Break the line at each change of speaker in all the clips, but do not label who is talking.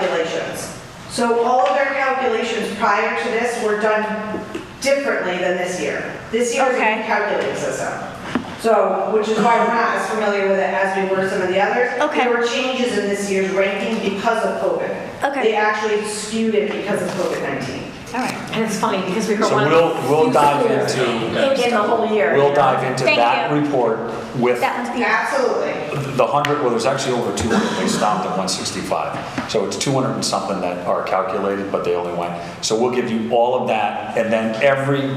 calculations. So all of their calculations prior to this were done differently than this year. This year is a
Okay.
new calculating system. So, which is why we're not as familiar with it as we were some of the others.
Okay.
There were changes in this year's ranking because of COVID.
Okay.
They actually skewed it because of COVID-19.
All right.
And it's funny because we were
So
one of
we'll-
the
we'll
few
dive
schools
into-
In the whole year.
We'll dive into
Thank
that
you.
report with
That one's the,
Absolutely.
the hundred, well, there's actually over two hundred, they stopped at one sixty-five. So it's two hundred and something that are calculated, but they only went. So we'll give you all of that and then every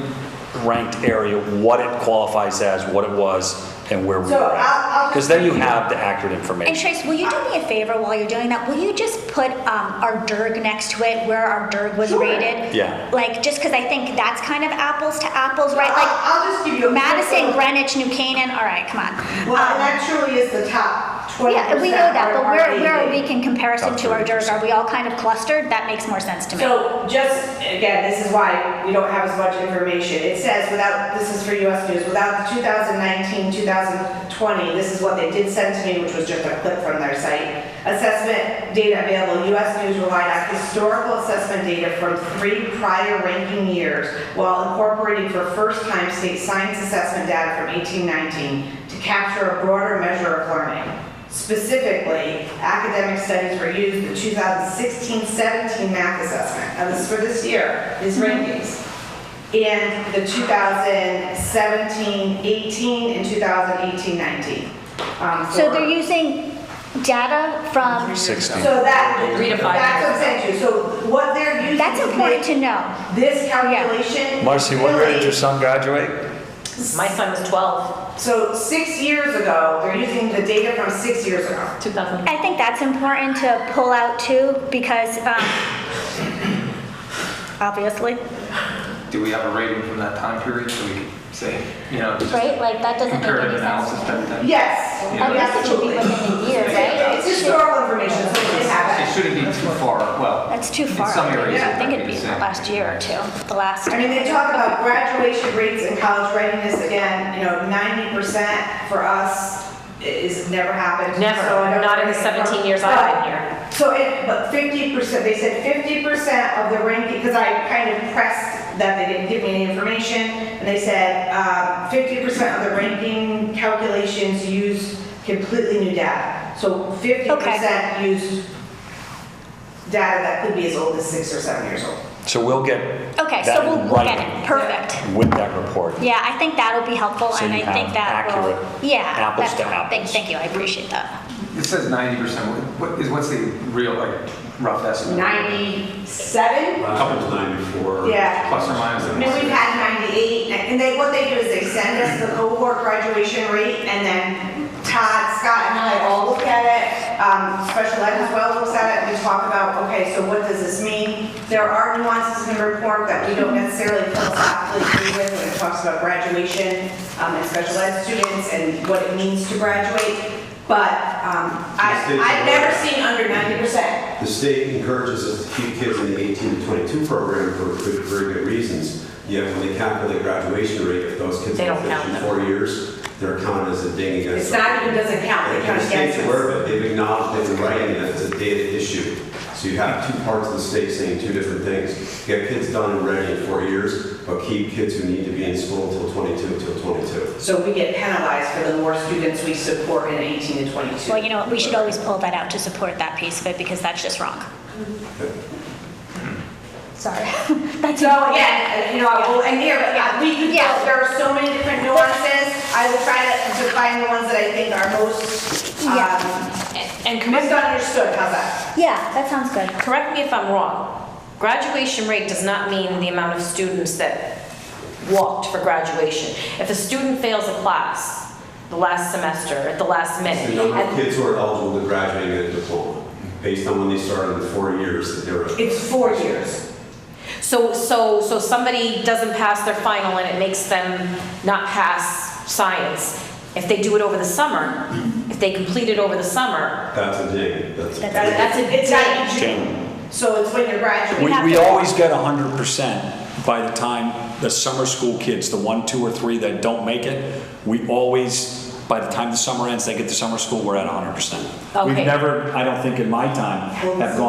ranked area, what it qualifies as, what it was, and where we
So
were
I'll-
at.
I'll-
Because then you have the accurate
and
information.
Trace, will you do me a favor while you're doing that? Will you just put um, our DIRG next to it, where our DIRG was
Sure.
rated?
Yeah.
Like, just because I think that's kind of apples to apples, right? Like
I'll I'll just give you a.
Madison, Greenwich, New Canaan, all right, come on.
Well, and
Um,
that truly is the top 20%.
Yeah, we know that,
are
but
our
where, where are
AD.
we in comparison to our DIRG? Are we all kind of clustered? That makes more sense to me.
So just, again, this is why we don't have as much information. It says without, this is for US News, without the 2019, 2020, this is what they did send to me, which was just a clip from their site. Assessment data available, US News relied on historical assessment data from three prior ranking years while incorporating for first time state science assessment data from 1819 to capture a broader measure of learning. Specifically, academic studies were used in the 2016-17 math assessment, and this is for this year, these
Mm-hmm.
rankings, and the 2017-18 and 2018-19. Um,
So
for-
they're using data from,
Sixty.
So that,
Three to five
that's what I'm saying to you, so what they're using.
that's
to
important
make
to know.
This calculation.
Marcy, what grade did your son graduate?
My son was 12,
So six years ago, they're using the data from six years ago.
2000.
I think that's important to pull out too, because, um, obviously,
Do we have a rating from that time period so we can say, you know, just
right? Like, that doesn't make
comparative
any sense.
analysis type of thing?
Yes,
I guess it should
absolutely.
be within a year, right?
It's historical information, so it did happen.
It shouldn't be too far, well,
That's too
In
far.
some areas,
I
it
think
might
it'd
be
be
the
the
same.
last year or two, the last.
I mean, they talk about graduation rates and college readiness, again, you know, ninety percent for us is, never happened.
Never.
So I don't
Not in the
really know.
17 years I've been
But-
here.
So it, but fifty percent, they said fifty percent of the ranking, because I kind of pressed that they didn't give me any information, and they said, uh, fifty percent of the ranking calculations use completely new data. So fifty percent use data that could be as old as six or seven years old.
So we'll get
Okay,
that
so we'll
in
we'll get
writing
it, perfect.
With that report.
Yeah, I think that'll be helpful,
So
and I
you
think
have
that will.
accurate
Yeah.
apples
that's-
to
thank-
apples.
Thank you, I appreciate that.
it says ninety percent, what is, what's the real, like, rough estimate?
Ninety-seven?
Last year's 94.
Yeah.
Plus or minus.
I mean, we've had 98, and they, what they do is they send us the cohort graduation rate, and then Todd, Scott, and I all look at it. Um, Special Ed as well looks at it, we talk about, okay, so what does this mean? There are nuances in the report that we don't necessarily philosophically agree with when it talks about graduation um, and special ed students and what it means to graduate, but um, I-
Mistakes are
I've never
rare.
seen under 90%.
The state encourages us to keep kids in the 18 to 22 program for good, very good reasons. Yet when they calculate graduation rate, if those kids
They
are
don't count
finished in
them.
four years, they're counted as a ding against.
It's not even, doesn't count,
And
it counts
The state's
against us.
aware of it, they've acknowledged it in writing that it's a data issue. So you have two parts of the state saying two different things. Get kids done and ready in four years, but keep kids who need to be in school until 22, until 22.
So we get penalized for the more students we support in 18 to 22.
Well, you know, what, we should always pull that out to support that piece of it, because that's just wrong. Sorry. That's
So
important.
again, you know, I will end here, but yeah, we could,
Yeah.
there are so many different nuances. I will try to define the ones that I think are most
Yeah.
um,
And correct,
misunderstood, how's that?
Yeah, that sounds good.
correct me if I'm wrong, graduation rate does not mean the amount of students that walked for graduation. If a student fails a class the last semester, at the last
The
minute,
number of
and-
kids who are eligible to graduate and get a diploma, based on when they started in the four years that they were.
It's four years.
so, so, so somebody doesn't pass their final and it makes them not pass science. If they do it over the summer, if they complete it over the summer,
That's a ding. That's a
That's-
that's a
It's not in
Jane.
June, so it's when you're graduating.
We, we always get hundred percent by the time the summer school kids, the one, two, or three that don't make it, we always, by the time the summer ends, they get to summer school, we're at hundred percent.
Okay.
We've never, I don't think in my time, have gone